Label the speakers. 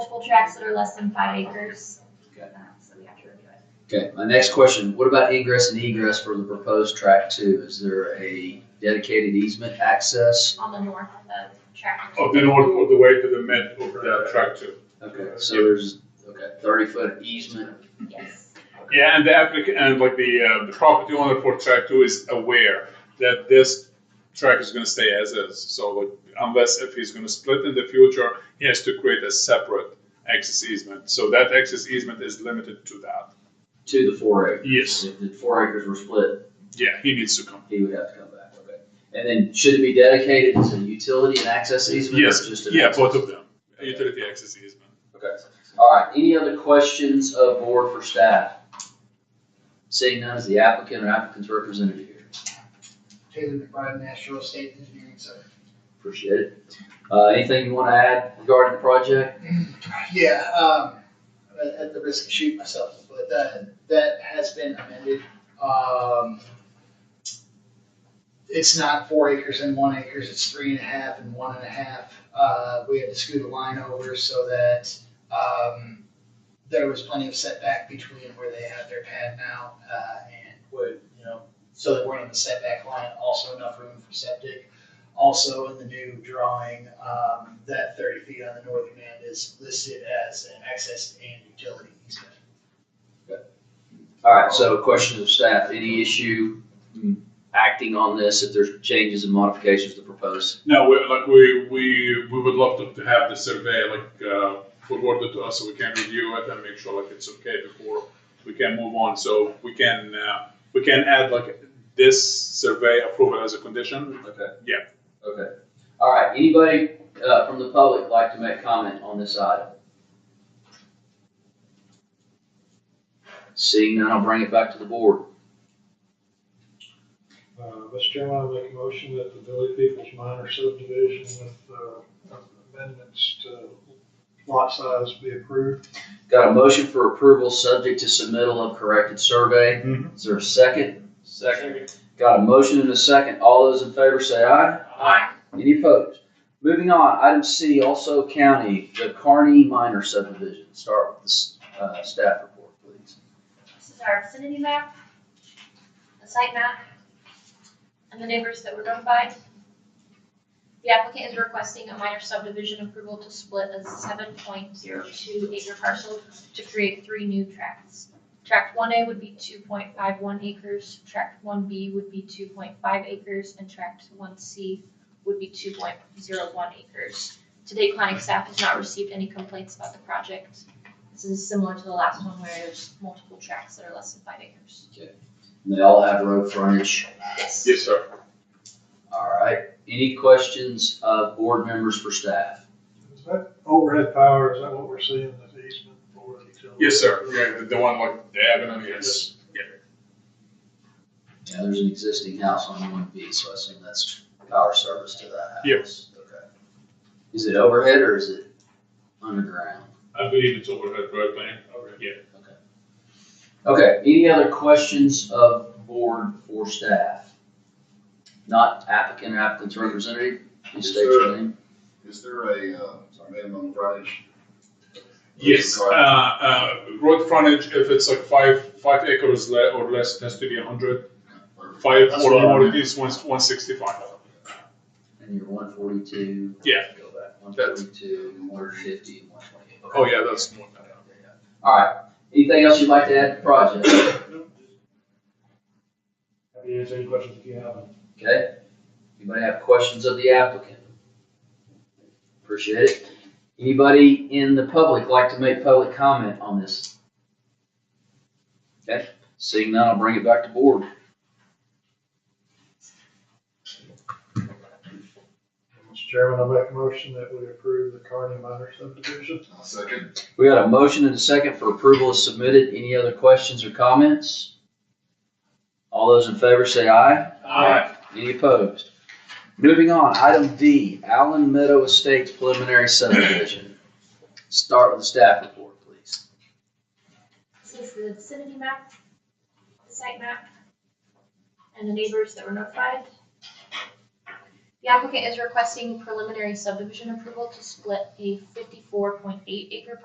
Speaker 1: full tracts that are less than five acres.
Speaker 2: Okay.
Speaker 1: Uh, So we have to review it.
Speaker 2: Okay, my next question, what about ingress and egress for the proposed track two? Is there a dedicated easement access?
Speaker 1: On the north of tract.
Speaker 3: Of Oh, the north, of the way to the mid, over that track too.
Speaker 2: Okay, so there's, okay, thirty foot easement,
Speaker 1: Yes.
Speaker 3: Yeah, and the applicant, and like the, uh, the property owner for track two is aware that this track is gonna stay as is. So like, unless if he's gonna split in the future, he has to create a separate access easement. So that access easement is limited to that.
Speaker 2: to the four acres.
Speaker 3: Yes.
Speaker 2: If the four acres were split,
Speaker 3: Yeah, he needs to come.
Speaker 2: he would have to come back, okay. And then should it be dedicated as a utility and access easement? or
Speaker 3: Yes,
Speaker 2: just an
Speaker 3: yeah,
Speaker 2: access?
Speaker 3: both of them, A utility access easement.
Speaker 2: Okay, all right, any other questions of board for staff? Seeing none, is the applicant or applicant's representative here?
Speaker 4: Taylor McBride, National Estate Engineering Center.
Speaker 2: Appreciate it. Uh, anything you wanna add regarding the project?
Speaker 4: Yeah, um, at- at the risk of shooting myself, but that, that has been amended. Um, it's not four acres and one acres, it's three and a half and one and a half. Uh, we had to scoot a line over so that, um, there was plenty of setback between where they have their pad now, uh, and would, you know, so they weren't in the setback line, also enough room for septic. Also in the new drawing, um, that thirty feet on the northern end is listed as an access and utility easement.
Speaker 2: All right, so questions of staff, any issue acting on this if there's changes and modifications to propose?
Speaker 3: No, we, like we, we, we would love to, to have the survey like uh, forwarded to us so we can review it and make sure like it's okay before we can move on. So we can uh, we can add like this survey approval as a condition.
Speaker 2: Okay.
Speaker 3: Yeah.
Speaker 2: Okay. All right, anybody uh, from the public like to make comment on this item? Seeing none, I'll bring it back to the board.
Speaker 5: Uh, Mr. Chairman, I make a motion that the Billy Peoples Minor subdivision with, uh, amendments to lot size be approved.
Speaker 2: Got a motion for approval subject to submittal of corrected survey. Is there a second?
Speaker 5: Second.
Speaker 2: Got a motion and a second. All those in favor say aye. Any opposed? Moving on, item C, also county, the Carney Minor subdivision. Start with the s- uh, staff report, please.
Speaker 1: This is our vicinity map, the site map, and the neighbors that were notified. The applicant is requesting a minor subdivision approval to split a seven point zero two acre parcel to create three new tracts. Tract one A would be two point five one acres, tract one B would be two point five acres, and tract one C would be two point zero one acres. To date, planning staff has not received any complaints about the project. This is similar to the last one where there's multiple tracks that are less than five acres.
Speaker 2: And They all have road frontage.
Speaker 1: Yes.
Speaker 3: Yes, sir.
Speaker 2: All right. Any questions of board members for staff?
Speaker 5: Is that overhead power, is that what we're seeing, the easement for the utility?
Speaker 3: Yes, sir. Yeah, the, the one like the avenue. Yes.
Speaker 2: Yeah, there's an existing house on one B, so I assume that's power service to that house.
Speaker 3: Yes.
Speaker 2: Okay. Is it overhead or is it underground?
Speaker 3: I believe it's overhead road plan. Yeah.
Speaker 2: Okay, any other questions of board for staff? Not applicant or applicant's representative, please state your name.
Speaker 6: Is there a, uh, minimum frontage?
Speaker 3: Yes. Uh, uh, road frontage, if it's like five five acres le- or less, it has to be 100. Five
Speaker 6: That's
Speaker 3: or
Speaker 6: what I
Speaker 3: more, it
Speaker 6: remember.
Speaker 3: is 165.
Speaker 2: And you're one forty-two.
Speaker 3: Yeah.
Speaker 2: Go back, one
Speaker 3: That's-
Speaker 2: forty-two, one fifty, and one twenty-eight.
Speaker 3: Oh, yeah, that's more than that.
Speaker 2: All right, anything else you'd like to add to the project?
Speaker 5: Happy to answer any questions if you have them.
Speaker 2: Okay, anybody have questions of the applicant? Appreciate it. Anybody in the public like to make public comment on this? Okay, seeing none, I'll bring it back to board.
Speaker 5: Mr. Chairman, I make a motion that we approve the Carney Minor subdivision.
Speaker 6: I'll second.
Speaker 2: We got a motion and a second for approval as submitted. Any other questions or comments? All those in favor say aye.
Speaker 3: Aye.
Speaker 2: Any opposed? Moving on, item D, Allen Meadow Estates preliminary subdivision. Start with the staff report, please.
Speaker 1: This is the vicinity map, the site map, and the neighbors that were notified. The applicant is requesting preliminary subdivision approval to split a fifty-four point eight acre